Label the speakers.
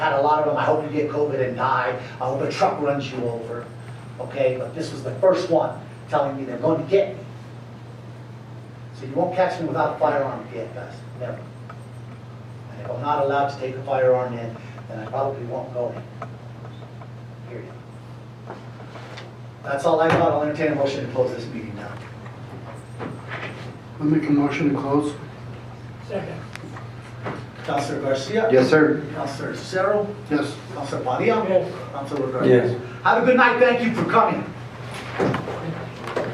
Speaker 1: God, a lot of them, I hope you get COVID and die. I hope a truck runs you over, okay? But this was the first one telling me they're going to get me. So you won't catch me without a firearm yet, guys, never. And if I'm not allowed to take a firearm in, then I probably won't go in. Period. That's all I got. I'll entertain a motion to close this meeting now.
Speaker 2: I'll make a motion to close.
Speaker 3: Second.
Speaker 1: Counselor Garcia?
Speaker 2: Yes, sir.
Speaker 1: Counselor Cerro?
Speaker 2: Yes.
Speaker 1: Counselor Padilla?
Speaker 3: Yes.
Speaker 1: Counselor Rodriguez? Have a good night. Thank you for coming.